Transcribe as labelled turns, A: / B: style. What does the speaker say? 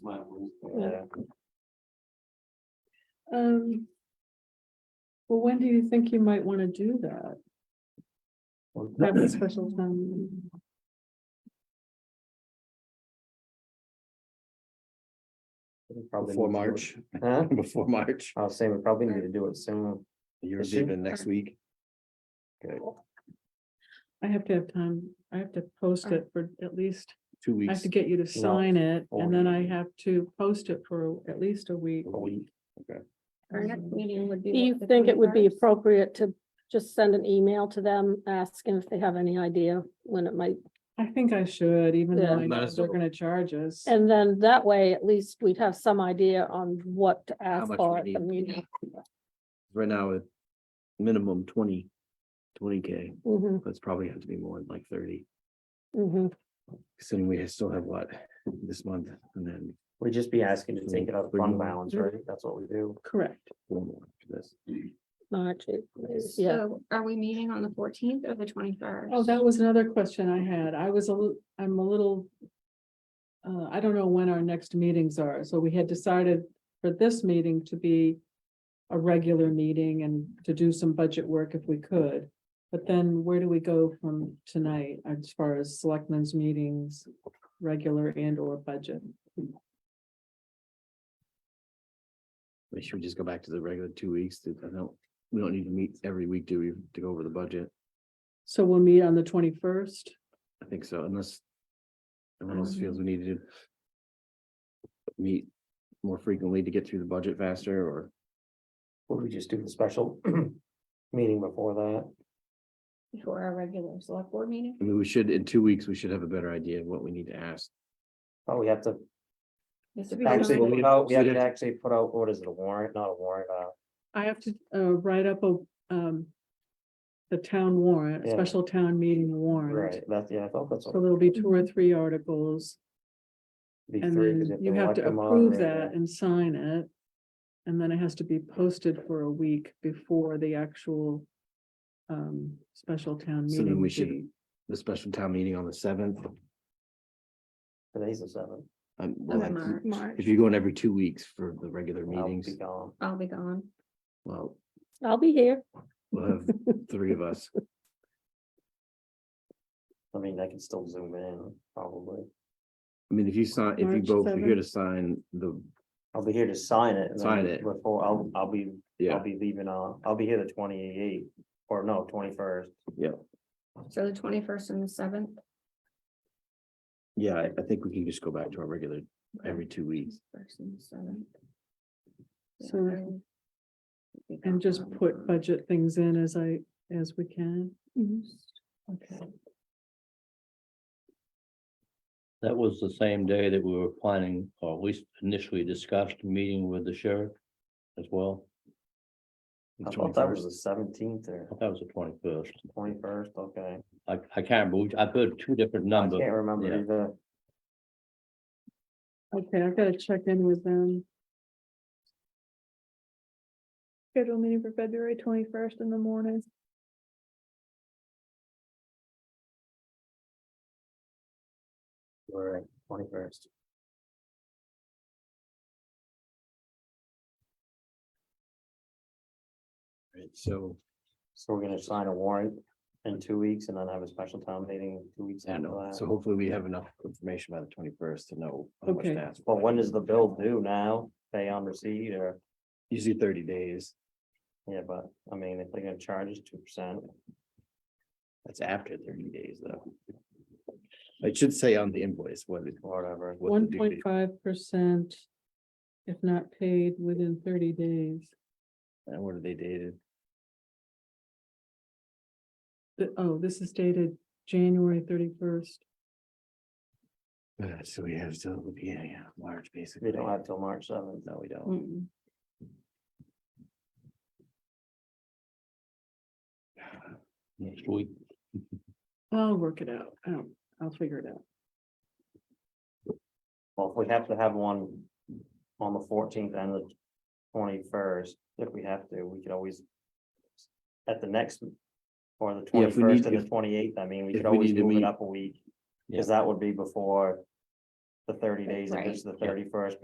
A: Yeah.
B: Um. Well, when do you think you might want to do that? Have a special town. meeting?
A: Probably
C: Before
A: need to do it-
C: March,
A: Huh?
C: before March,
A: I'll say we probably need to do it soon.
C: you're
A: Soon.
C: leaving next week.
B: I have to have time. I have to post it for at least,
C: two
B: I have
C: weeks,
B: to get you to sign it and then I
A: Or-
B: have to post it for at least a week.
C: a week.
D: Our next meeting would be.
E: Um, Do
D: what,
E: you
D: the
E: think it would be
D: 21st?
E: appropriate to just send an email to them, asking if they have any idea when it might?
B: I think I should, even though
E: Yeah.
B: I
F: Might
B: know
F: as
B: they're
F: well.
B: gonna charge us.
E: And then that way, at least we'd have some idea on what to ask
F: much
E: for
F: we
E: at the
F: need.
E: meeting.
F: Right now, at minimum 20 20 K,
E: hmm
F: but it's probably have to be more like thirty,
E: hmm
F: considering we still have what, this month and then
A: We'd just be asking to take it out of fund balance,
B: Mhm.
A: right? That's what we do.
B: Correct.
F: four more for this.
E: March, yeah.
D: So are we meeting on the fourteenth or the twenty-first?
B: Oh, that was another question I had. I was a, lit- I'm a little. Uh, I don't know when our next meetings are, so we had decided for this meeting to be. A regular meeting and to do some budget work if we could. But then where do we go from tonight as far as selectmen's meetings, regular and or budget?
F: We should just go back to the regular two weeks. that- I don't, we don't need to meet every week, do we, to go over the budget?
B: So we'll meet on the twenty-first.
F: I think so, unless everyone else feels we need to meet more frequently to get through the budget faster or
A: Would we just do the special meeting before that?
D: Before our regular select board meeting?
F: I mean, we should, in two weeks, we should have a better idea of what we need to ask.
A: Oh, we have to
D: This would be
A: actually,
D: really-
F: we'll-
A: put out- we have
F: we'll-
A: to actually put out, what is it, a warrant, not a warrant, uh,
B: I have to uh write up a um. The town warrant,
A: Yeah.
B: special town meeting warrant.
A: right, that's, yeah, I thought that's
B: So
A: what.
B: there'll be two or three articles
A: be
B: and
A: three, 'cause
B: then
A: if
B: you
A: they
B: have
A: elect
B: to
A: them on,
B: approve
A: right, yeah.
B: that and sign it. And then it has to be posted for a week before the actual um special town
F: So then
B: meeting.
F: we should-
B: date.
F: The special town meeting on the seventh. Um,
A: Today's the seventh.
D: Oh, Mar- March,
F: If you're going every two weeks for the regular
A: I'll be
F: meetings,
A: gone.
D: I'll be gone.
F: well,
E: I'll be here.
F: we'll have three of us.
A: I mean, I can still zoom in, probably.
F: I mean, if you sign, if you
B: March
F: both are here to sign the,
A: I'll be here to sign it. and then
F: Sign it.
A: Before, I'll, I'll be, I'll
F: yeah,
A: be leaving, uh, I'll be here the twenty-eighth, or no, twenty-first.
D: So the twenty-first and the seventh.
F: yeah, I I think we can just go back to our regular every two weeks.
D: First and the seventh. Yeah,
B: So-
D: I will be
B: And just
D: gone.
B: put budget things in as I, as we can.
D: Okay.
G: That was the same day that we were planning, or at least initially discussed, meeting with the sheriff as well.
F: the
A: I thought that
F: 21st.
A: was the seventeenth or
G: That was the twenty-first.
A: twenty-first, okay.
G: I, I can't believe, I've heard two different
A: I
G: numbers.
A: can't remember
G: yeah.
A: either.
B: Okay, I've got to check in with them.
H: Schedule meeting for February twenty-first in the morning.
A: All right, twenty-first.
F: Right, So,
A: So we're gonna sign a warrant in two weeks and then have a special town meeting two weeks
F: I
A: after
F: know,
A: that.
F: so hopefully we have enough information by the twenty-first to know. how much
B: Okay.
F: to ask.
A: But when is the bill due now? Pay on receipt or,
F: Usually thirty days,
A: yeah, but I mean, if they're gonna charge us two percent,
F: that's after thirty days, though. It should say on the invoice what it.
A: whatever.
F: what the
B: One
F: due
B: point
F: date-
B: five percent. If not paid within thirty days.
F: And what are they dated?
B: The- oh, this is dated January thirty-first.
F: Uh, So we have still the beginning of March, basically.
A: We don't have till March seventh.
F: No, we don't.
D: Mm-mm.
F: Uh,
G: Next week,
B: I'll work it out. I don't, I'll figure it out.
A: Well, if we have to have one on the fourteenth and the twenty-first, if we have to, we could always. At the next, or the
F: Yeah, if we need-
A: twenty-first and the
F: if-
A: twenty-eighth, I mean, we
F: if
A: could
F: we
A: always
F: need to
A: move it
F: meet-
A: up a week.
G: Yeah.
A: Cause that would be before the thirty days, if it's the
G: Yeah.
A: thirty-first,